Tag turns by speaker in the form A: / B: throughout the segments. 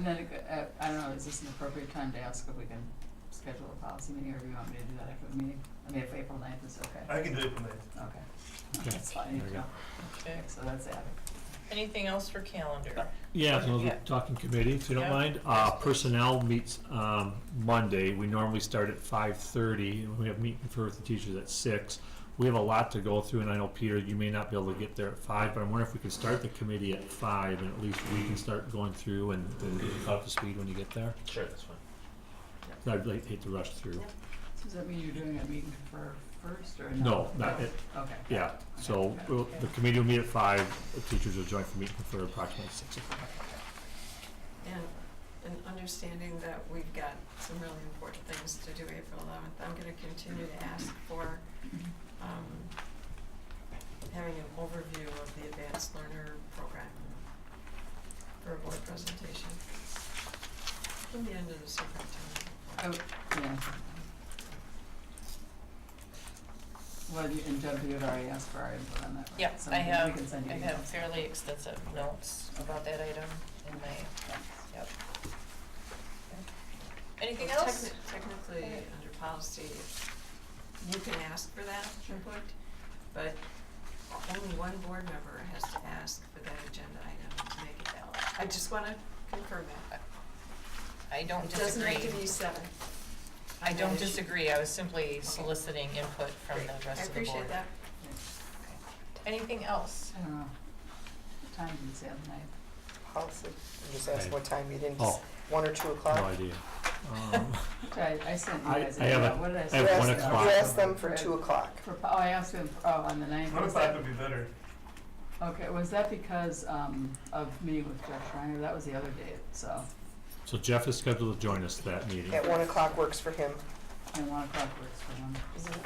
A: that a good, uh, I don't know, is this an appropriate time to ask if we can schedule a policy meeting, or do you want me to do that after the meeting? I mean, if April ninth is okay,
B: I can do it from there.
A: okay.
C: Okay.
A: That's fine,
C: There we go.
D: Okay.
A: so that's added.
D: Anything else for calendar?
C: Yeah, so
D: Yeah.
C: we're talking committee, if you don't
D: Yeah.
C: mind. Uh, personnel meets, um, Monday. We normally start at five thirty, and we have meet and confer with the teachers at six. We have a lot to go through, and I know, Peter, you may not be able to get there at five, but I'm wondering if we could start the committee at five, and at least we can start going through and then get you up to speed when you get there.
E: Sure, that's fine.
C: I'd like, hate to rush through.
A: So does that mean you're doing a meeting for first, or
C: No,
A: not?
C: not it,
A: Okay. Oh,
C: yeah. So, we'll- the committee will meet at five, the teachers will join for meet and confer approximately six o'clock.
F: And, and understanding that we've got some really important things to do April eleventh, I'm gonna continue to ask for, um, having an overview of the advanced learner program for a board presentation. From the end of the superintendent.
A: Oh, yeah. Well, you, and Deb, you had already asked for our input on that, right?
D: Yep,
A: So
D: I
A: we can-
D: have-
A: We can send you
D: I
A: emails.
D: have fairly extensive notes about that item in my,
A: Thanks.
D: anything
F: Well,
D: else?
F: techni- Technically,
D: Okay.
F: under policy, you can ask for that input, but only one board member has to ask for that agenda item to make it valid. I just wanna confirm that.
D: I don't
F: It doesn't have to
D: disagree.
F: be seven.
D: I
F: on that
D: don't
F: issue.
D: disagree. I was simply soliciting input from the
F: I
D: rest of the board.
F: appreciate that.
D: Anything else?
A: I don't know. What time did you say on the ninth?
G: Policy, you just asked
C: Okay.
G: what time, you didn't,
C: Oh,
G: one or two
C: no
G: o'clock?
C: idea. Um,
A: I, I sent you
C: I-
A: guys
C: I
A: an
C: have
A: email.
C: a-
A: What did I
C: I
A: say?
C: have
G: You
C: one
G: asked-
C: o'clock.
G: You asked them for two o'clock.
A: For, oh, I asked him, oh, on the ninth,
B: One
A: was
B: o'clock
A: that,
B: would be better.
A: okay, was that because, um, of meeting with Jeff Schreiner, that was the other date, so,
C: So Jeff is scheduled to join us that meeting.
G: At one o'clock works for him.
A: and one o'clock works for him.
G: Is it-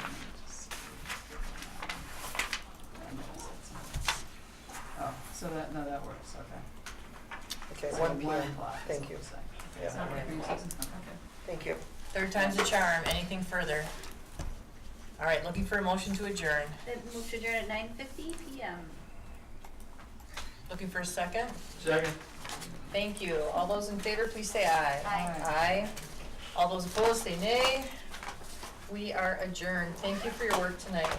A: Oh, so that, no, that works, okay.
G: Okay,
A: So
G: one P
A: One
G: M.
A: o'clock. is
G: Thank
A: what
G: you.
A: it's like.
G: Yeah.
A: Is that right for you, Susan?
G: Thank you.
D: Third time's a charm. Anything further? All right, looking for a motion to adjourn.
H: That moved to adjourn at nine fifty PM.
D: Looking for a second?
B: Second.
D: Thank you. All those in favor, please say aye.
H: Aye.
D: Aye. All those opposed, say nay. We are adjourned. Thank you for your work tonight.